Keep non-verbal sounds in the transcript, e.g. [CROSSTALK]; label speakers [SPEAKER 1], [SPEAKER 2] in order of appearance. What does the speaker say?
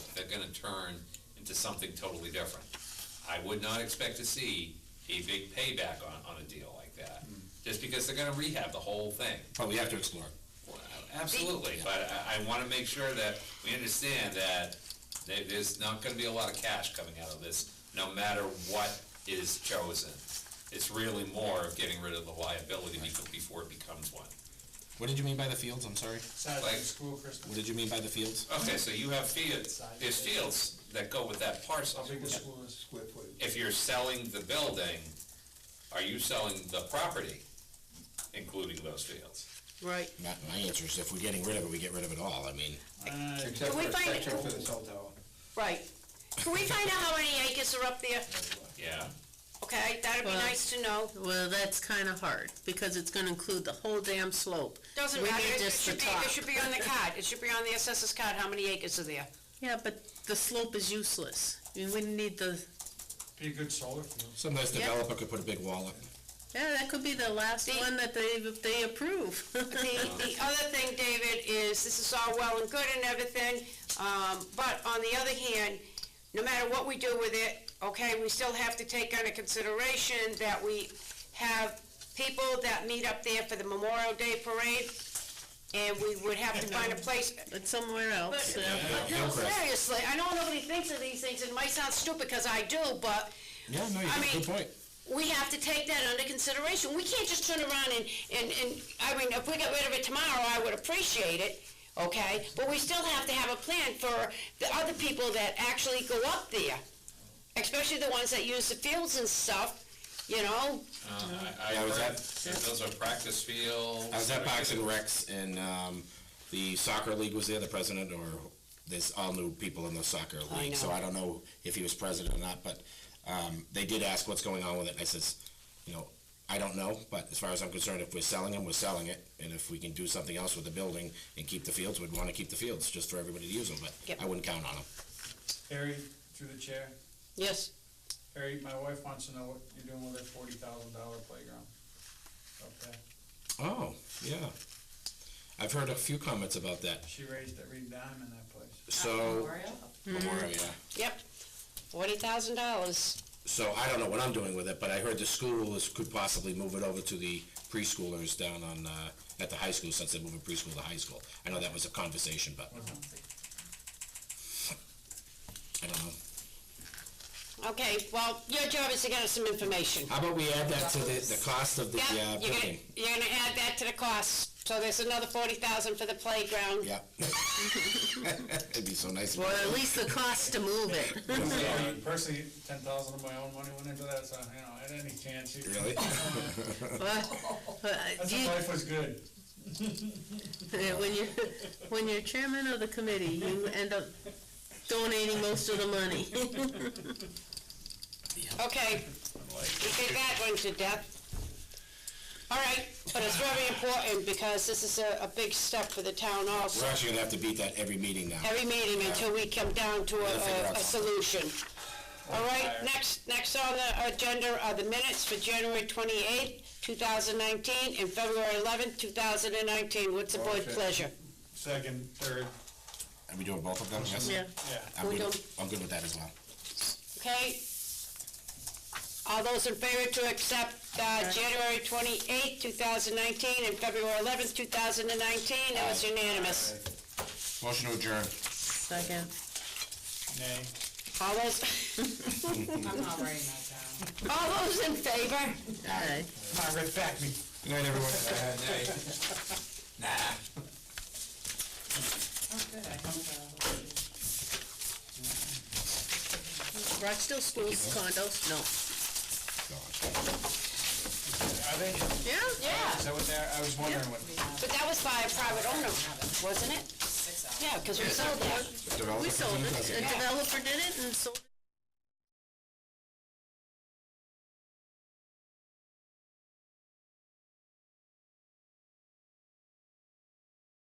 [SPEAKER 1] gonna turn into something totally different. I would not expect to see a big payback on, on a deal like that, just because they're gonna rehab the whole thing.
[SPEAKER 2] But Oh, we have to explore.
[SPEAKER 1] Well, Absolutely, but I, I wanna make sure that we understand that there, there's not gonna be a lot of cash coming out of this, no matter what is chosen. It's really more of getting rid of the liability beco- before it becomes one.
[SPEAKER 2] What did you mean by the fields? I'm sorry.
[SPEAKER 3] Saturday
[SPEAKER 1] Like-
[SPEAKER 3] school Christmas.
[SPEAKER 2] What did you mean by the fields?
[SPEAKER 1] Okay, so you have fields, there's fields that go with that parcel.
[SPEAKER 3] How big the school is square footage?
[SPEAKER 1] If you're selling the building, are you selling the property, including those fields?
[SPEAKER 4] Right.
[SPEAKER 2] Not my answer is if we're getting rid of it, we get rid of it all. I mean,
[SPEAKER 3] Except
[SPEAKER 4] Can we
[SPEAKER 3] for,
[SPEAKER 4] find-
[SPEAKER 3] except for the cell tower.
[SPEAKER 4] Right. Can we find out how many acres are up there?
[SPEAKER 1] Yeah,
[SPEAKER 4] Okay, that'd be
[SPEAKER 5] Well-
[SPEAKER 4] nice to know.
[SPEAKER 5] Well, that's kind of hard, because it's going to include the whole damn slope.
[SPEAKER 4] Doesn't
[SPEAKER 5] We
[SPEAKER 4] matter,
[SPEAKER 5] need
[SPEAKER 4] it it
[SPEAKER 5] just
[SPEAKER 4] should
[SPEAKER 5] the
[SPEAKER 4] be, it
[SPEAKER 5] top.
[SPEAKER 4] should be on the card, it should be on the assessor's card, how many acres are there?
[SPEAKER 5] Yeah, but the slope is useless. We wouldn't need the,
[SPEAKER 3] Be a good solar field.
[SPEAKER 2] some nice
[SPEAKER 5] Yeah.
[SPEAKER 2] developer could put a big wall up.
[SPEAKER 5] yeah, that could be the last
[SPEAKER 4] The-
[SPEAKER 5] one that they, they approve. [LAUGHS]
[SPEAKER 4] The, the other thing, David, is this is all well and good and everything, um, but on the other hand, no matter what we do with it, okay, we still have to take under consideration that we have people that meet up there for the Memorial Day Parade, and we would have to find a place,
[SPEAKER 5] It's somewhere else.
[SPEAKER 4] But-
[SPEAKER 5] yeah.
[SPEAKER 4] But no, seriously, I know nobody thinks of these things, it might sound stupid, because I do, but
[SPEAKER 2] Yeah, no, you
[SPEAKER 4] I
[SPEAKER 2] got a
[SPEAKER 4] mean-
[SPEAKER 2] good point.
[SPEAKER 4] we have to take that under consideration. We can't just turn around and, and, and, I mean, if we got rid of it tomorrow, I would appreciate it, okay? But we still have to have a plan for the other people that actually go up there, especially the ones that use the fields and stuff, you know?
[SPEAKER 1] uh, I, I
[SPEAKER 2] Yeah, I was
[SPEAKER 1] heard
[SPEAKER 2] at-
[SPEAKER 1] that those are practice fields.
[SPEAKER 2] I was at Box and Rex, and um, the soccer league was there. The president, or there's all new people in the soccer league,
[SPEAKER 4] I
[SPEAKER 2] so
[SPEAKER 4] know.
[SPEAKER 2] I don't know if he was president or not. But um, they did ask what's going on with it. And I says, you know, I don't know. But as far as I'm concerned, if we're selling them, we're selling it, and if we can do something else with the building and keep the fields, we'd want to keep the fields just for everybody to use them. But
[SPEAKER 4] Yep.
[SPEAKER 2] I wouldn't count on them.
[SPEAKER 3] Harry, through the chair.
[SPEAKER 5] Yes,
[SPEAKER 3] Harry, my wife wants to know what you're doing with that forty thousand dollar playground. Okay,
[SPEAKER 2] Oh, yeah. I've heard a few comments about that.
[SPEAKER 3] she raised it, read dime in that place.
[SPEAKER 2] So, Memorial, yeah.
[SPEAKER 4] Yep, forty thousand dollars.
[SPEAKER 2] So I don't know what I'm doing with it, but I heard the school is, could possibly move it over to the preschoolers down on, uh, at the high school, since they're moving preschool to high school. I know that was a conversation, but I don't know.
[SPEAKER 4] Okay, well, your job is to get us some information.
[SPEAKER 2] How about we add that to the, the cost of the, uh,
[SPEAKER 4] Yep, you're gonna,
[SPEAKER 2] building?
[SPEAKER 4] you're gonna add that to the cost, so there's another forty thousand for the playground.
[SPEAKER 2] Yeah. [LAUGHS] It'd be so nice.
[SPEAKER 5] [LAUGHS] or at least the cost to move [LAUGHS] it.
[SPEAKER 3] I mean, Personally, ten thousand of my own money went into that, so, you know, at any chance, you-
[SPEAKER 2] Really?
[SPEAKER 5] [LAUGHS] But- but
[SPEAKER 3] that's
[SPEAKER 5] do
[SPEAKER 3] if
[SPEAKER 5] you-
[SPEAKER 3] life was good.
[SPEAKER 5] Yeah, When you're, when you're chairman of the committee, you end up donating most of the money. [LAUGHS]
[SPEAKER 4] Okay, we did that one to death. All right, but it's very important, because this is a, a big step for the town
[SPEAKER 2] We're
[SPEAKER 4] also.
[SPEAKER 2] actually gonna have to beat that every meeting now.
[SPEAKER 4] Every meeting until we come down to
[SPEAKER 2] We'll figure
[SPEAKER 4] a,
[SPEAKER 2] out
[SPEAKER 4] a solution. All right, next, next on the agenda are the minutes for January twenty-eighth, two thousand nineteen, and February eleventh, two thousand and nineteen. What's the board
[SPEAKER 3] Okay.
[SPEAKER 4] pleasure?
[SPEAKER 3] Second, third,
[SPEAKER 2] Are we doing both of them, yes?
[SPEAKER 5] Yeah.
[SPEAKER 3] yeah.
[SPEAKER 2] I'm
[SPEAKER 4] We
[SPEAKER 2] good,
[SPEAKER 4] don't-
[SPEAKER 2] I'm good with that as well.
[SPEAKER 4] Okay. All those in favor to accept uh, January 28, 2019, and February 11, 2019, that was unanimous.
[SPEAKER 2] Motion to adjourn.
[SPEAKER 5] Second.
[SPEAKER 3] Nay.
[SPEAKER 4] All those... I'm not writing that down. All those in favor?
[SPEAKER 5] Aye.
[SPEAKER 3] Margaret, back me.
[SPEAKER 2] Good night, everyone. Nah.
[SPEAKER 5] Rochdale Schools condos, no.
[SPEAKER 3] Are they, is
[SPEAKER 5] Yeah?
[SPEAKER 4] Yeah,
[SPEAKER 3] that what they're, I was wondering what.
[SPEAKER 4] but that was by a private owner, wasn't it? Yeah, because we sold that.
[SPEAKER 2] Developer
[SPEAKER 5] We sold
[SPEAKER 2] does
[SPEAKER 5] it. The developer did it and sold it.